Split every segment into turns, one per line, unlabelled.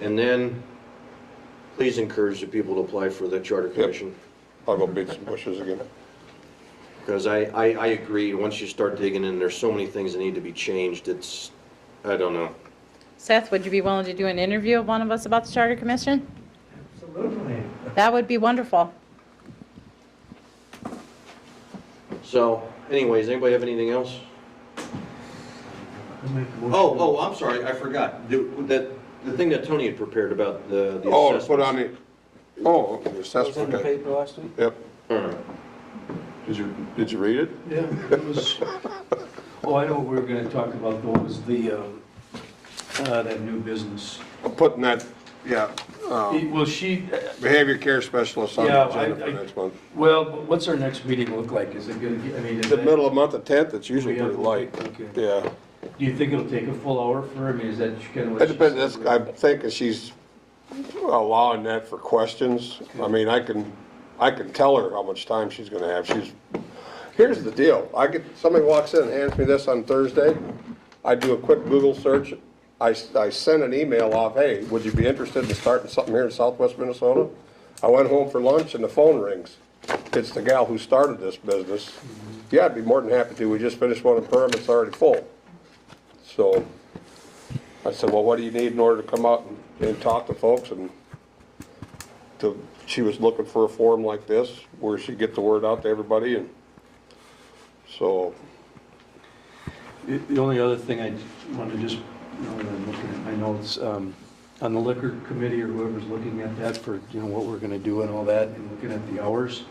And then, please encourage the people to apply for the charter commission.
I'll go beat some bushes again.
Because I, I, I agree, once you start digging in, there's so many things that need to be changed, it's, I don't know.
Seth, would you be willing to do an interview of one of us about the Charter Commission?
Absolutely.
That would be wonderful.
So anyways, anybody have anything else?
I make a motion.
Oh, oh, I'm sorry, I forgot. The, that, the thing that Tony had prepared about the, the
Oh, to put
assessments.
on the, oh, the
was in
assessment,
the
okay.
paper last week?
Yep.
All right.
Hmm. Did you, did you read it?
Yeah, it was, oh, I know what we were gonna talk about though, was the, um, uh, that new business.
I'm Putting that, yeah, um,
Well, she,
behavior care specialist on
Yeah,
the
I-
agenda for
I-
next month.
well, what's our next meeting look like? Is it gonna, be- I mean, is
The
that-
middle of month, the tenth, it's usually
we have-
pretty light.
Okay.
Yeah,
Do you think it'll take a full hour for, her? I mean, is that kind of what?
it
she
depends,
said?
that's- I'm thinking she's allowing that for questions. I mean, I can, I can tell her how much time she's gonna have, she's, here's the deal, I get, somebody walks in and hands me this on Thursday, I do a quick Google search, I, s- I send an email off, hey, would you be interested in starting something here in southwest Minnesota? I went home for lunch and the phone rings. It's the gal who started this business. Yeah, I'd be more than happy to, we just finished one in Perham, it's already full. So, I said, well, what do you need in order to come out and, and talk to folks? And to, she was looking for a forum like this where she'd get the word out to everybody and so,
The the only other thing I want to just, now that I'm looking at my notes, um, on the liquor committee or whoever's looking at that for, you know, what we're going to do and all that, and looking at the hours,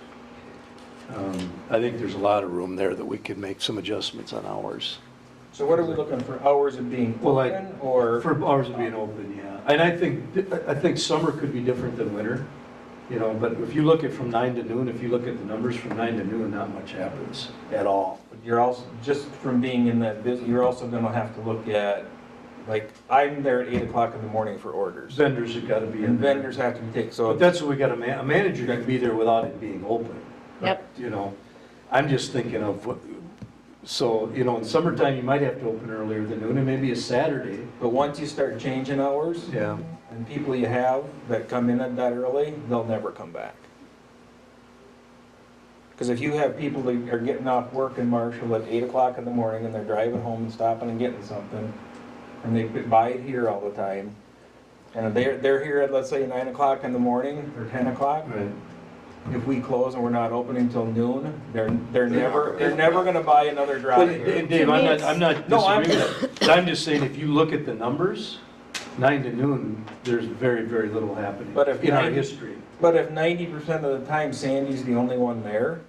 um, I think there's a lot of room there that we could make some adjustments on hours.
So what are we looking for, hours of being
Well, I-
open or?
For hours of being open, yeah. And I think, I think summer could be different than winter, you know, but if you look at from nine to noon, if you look at the numbers from nine to noon, not much happens at all.
You're also, just from being in that business, you're also gonna have to look at, like, I'm there at eight o'clock in the morning for orders.
Vendors have got to be in
And
there.
vendors have to be taken, so.
But that's what we got, a man, a manager can be there without it being open.
Yep.
You know, I'm just thinking of what, so, you know, in summertime, you might have to open earlier than noon, and maybe a Saturday.
But once you start changing hours
Yeah.
and people you have that come in at that early, they'll never come back. Because if you have people that are getting off work in Marshall at eight o'clock in the morning and they're driving home and stopping and getting something, and they buy it here all the time, and they're, they're here at, let's say, nine o'clock in the morning or ten o'clock,
Right.
if we close and we're not open until noon, they're, they're never, they're never gonna buy another
But,
drive
and
here.
Dave, I'm not, I'm not
No, I'm-
disagreeing with that, but I'm just saying, if you look at the numbers, nine to noon, there's very, very little happening
But if
in our
nine-
history.
But if ninety percent of the time Sandy's the only one there,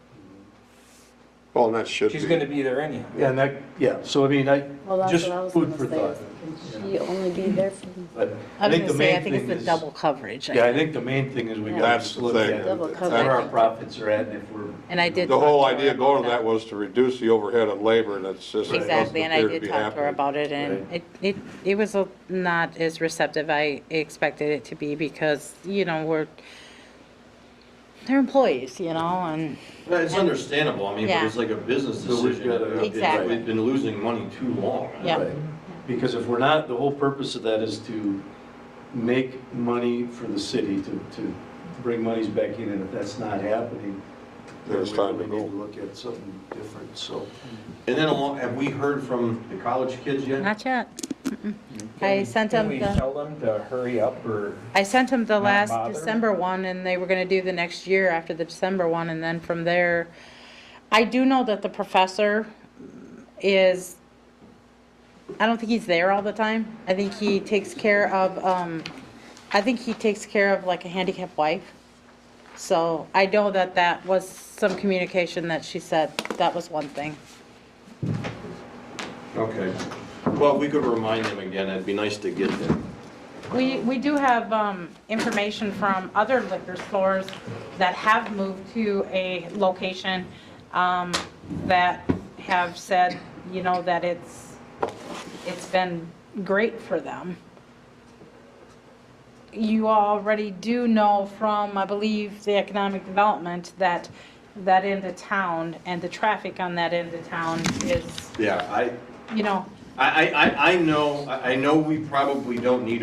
well, and that should
She's gonna
be.
be there anyhow.
Yeah, and that, yeah, so I mean, I,
Well, that's
just
what I was
food
gonna
for
say.
thought.
is Can she only be there for
But
I was going
think the
to say,
main
I think it's
thing
the
is-
double coverage.
Yeah, I think the main thing is we
Yeah.
gotta
That's
just
the
look
thing.
at
Double
where
coverage.
our profits are at and if we're.
And I did.
The whole
talk to her
idea going to
about
that was to reduce the overhead on labor and it's just. it doesn't
Exactly, and I
appear to
did
be
talk to her
happening.
about it, and it, it, it was a- not as receptive I expected it to be, because, you know, we're, they're employees, you know, and,
Well, Uh, It's understandable, I mean, but
Yeah.
it's like a business
So we've
decision.
gotta-
It's-
Exactly.
It's been losing money too long.
Yeah.
Right. Because if we're not, the whole purpose of that is to make money for the city, to, to bring monies back in, and if that's not happening, then
There's
we
time to
really
go.
need to look at something different, so.
And then along- have we heard from the college kids yet?
not yet.
Can
I
we-
sent
can
him
we
the-
tell them to hurry up or?
I sent them the
Not
last
bother?
December one, and they were gonna do the next year after the December one, and then from there, I do know that the professor is, I don't think he's there all the time. I think he takes care of, um, I think he takes care of like a handicapped wife. So I know that that was some communication that she said, that was one thing.
Okay. Well, we could remind them again, it'd be nice to get them.
We, we do have um, information from other liquor stores that have moved to a location um, that have said, you know, that it's, it's been great for them. You already do know from, I believe, the economic development that that end of town and the traffic on that end of town is,
Yeah, I,
you know,
I, I, I know, I I know we probably don't need a